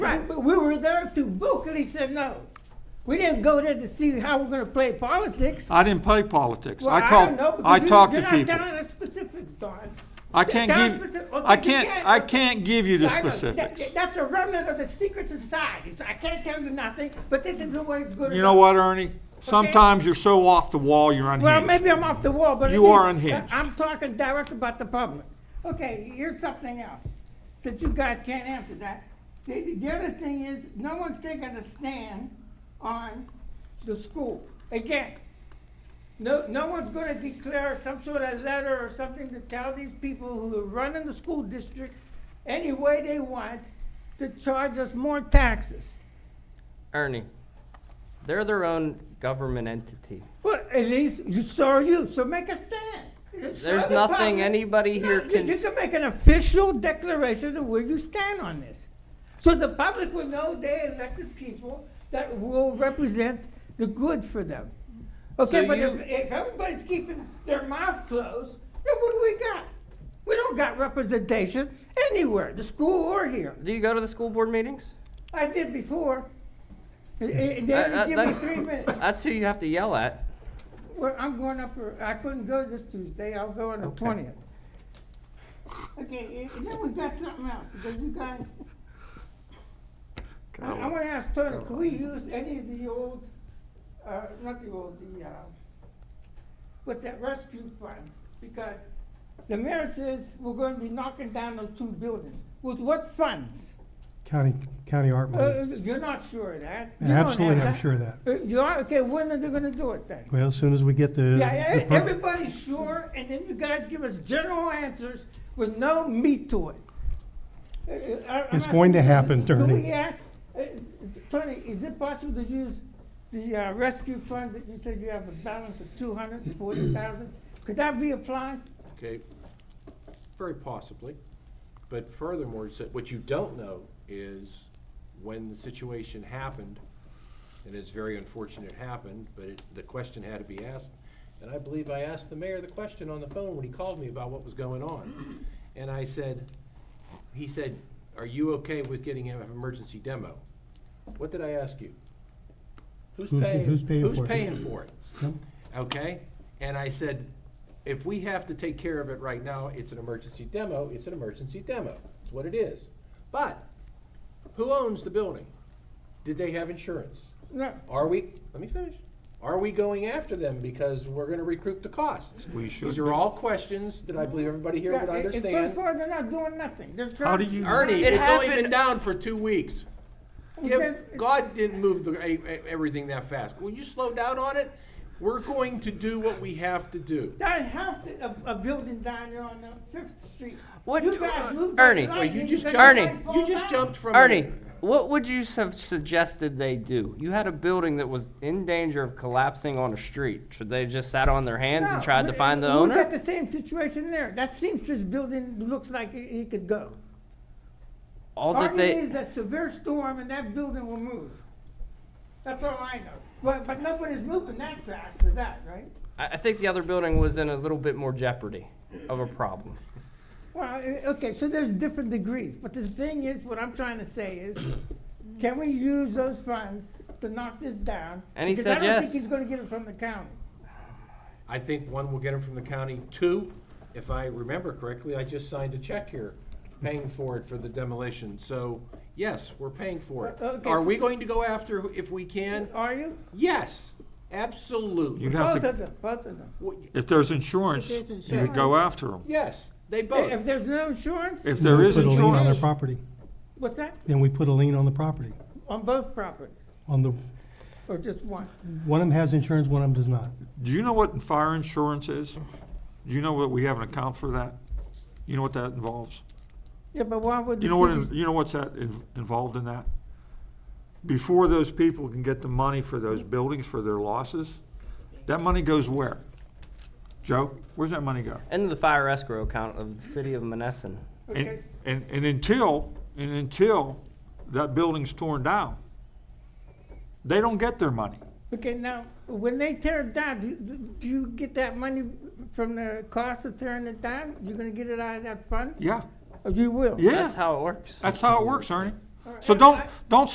reserve to book, and he said, no. We didn't go there to see how we're gonna play politics. I didn't play politics. Well, I don't know, called, because I you- talked to You're people. not down to specifics, Don. I can't Down give, specific- okay, I you can't, I can't give you the I know. That- specifics. That's a remnant of the secret society, so I can't tell you nothing, but this is the way it's gonna You know go. what, Ernie? Sometimes you're so off the wall, you're Well, unhinged. maybe I'm off the wall, but. at You are least unhinged. I'm talking direct about the public. Okay, here's something else, since you guys can't answer that. The, the other thing is, no one's taking a stand on the school. Again, no, no one's gonna declare some sort of letter or something to tell these people who are running the school district any way they want to charge us more taxes. Ernie, they're their own government entity. Well, at least you saw you, so make a stand. There's nothing anybody here can. can You s- can make an official declaration of where you stand on this. So the public will know they elected people that will represent the good for them. Okay, So but you- if, if everybody's keeping their mouth closed, then what do we got? We don't got representation anywhere, the school or here. Do you go to the school board meetings? I did before. And- and They had That- to that- give me that- three minutes. That's who you have to yell at. Well, I'm going up for, I couldn't go this Tuesday, I'll go on the twentieth. Okay, and then we got something else, because you guys, I, I wanna ask Turner, can we use any of the old, uh, not the old, the, uh, what's that, rescue funds? Because the mayor says we're gonna be knocking down those two buildings, with what funds? County, county art Uh, money. you're not sure of that? You don't have Mm-hmm. Absolutely, I'm that. sure of that. Uh, You are, okay, when are they gonna do it then? Well, as soon as we get the. Yeah, the e- pro- everybody's sure, and then you guys give us general answers with no meat to it. Uh, uh, I- I'm It's not- going to happen, Do Tony. we ask, uh, Tony, is it possible to use the uh, rescue funds that you said you have a balance of two hundred and forty thousand? Could that be applied? Okay, very possibly. But furthermore, so- what you don't know is when the situation happened, and it's very unfortunate it happened, but it, the question had to be asked. And I believe I asked the mayor the question on the phone when he called me about what was going on. And I said, he said, are you okay with getting an emergency demo? What did I ask you? Who's Who's- paying, who's paying who's for it? paying for it? Yep. okay? And I said, if we have to take care of it right now, it's an emergency demo, it's an emergency demo, it's what it is. But, who owns the building? Did they have insurance? No, Are we, let me finish, are we going after them because we're gonna recoup the costs? We should These are all questions that I believe everybody here would Yeah, and- and so understand. far, they're not doing nothing. They're How do trying- you- Ernie, It it's only been happened- down for two weeks. Well, Yeah, then- God didn't move the, e- e- everything that fast. Will you slow down on it? We're going to do what we have to do. That house, that- a, a building down there on uh, Fifth Street. What- You guys uh, moved that Ernie, light Well, you and just let jumped. the Ernie, light fall You just down. jumped from. Ernie, what would you have suggested they do? You had a building that was in danger of collapsing on a street. Should they have just sat on their hands and No, tried to we- find the We got owner? the same situation there. That seamstress building looks like it it could go. All All that it they, is a severe storm and that building will move. That's all I know. But, but nobody's moving that fast for that, right? I, I think the other building was in a little bit more jeopardy of a problem. Well, eh, okay, so there's different degrees, but the thing is, what I'm trying to say is, can we use those funds to knock this down? And he said Because I don't yes. think he's gonna get it from the county. I think one will get them from the county. Two, if I remember correctly, I just signed a check here paying for it for the demolition. So, yes, we're paying for Uh, it. okay, Are so- we going to go after who- if we can? Are you? Yes, absolutely. You have Both of to, them, both of them. W- if there's insurance, If there's you would go insurance. after them. Yes, they If both. there's no insurance, If Then there we is Put a lien on their insurance, property. what's that? Then we put a lien on the property. On both properties, On the, or just one? one of them has insurance, one of them does not. do you know what fire insurance is? Do you know what, we have an account for that? You know what that involves? Yeah, but why would the You know what, city- you know what's that, in- involved in that? Before those people can get the money for those buildings, for their losses, that money goes where? Joe, where's that money go? Into the fire escrow account of the city of Monessen. Okay. And, and, and until, and until that building's torn down, they don't get their money. Okay, now, when they tear it down, do, do you get that money from the cost of tearing it down? You're gonna get it out of that fund? Yeah, Or you will? yeah. That's how it works. That's how it works, Ernie. All right. So don't, don't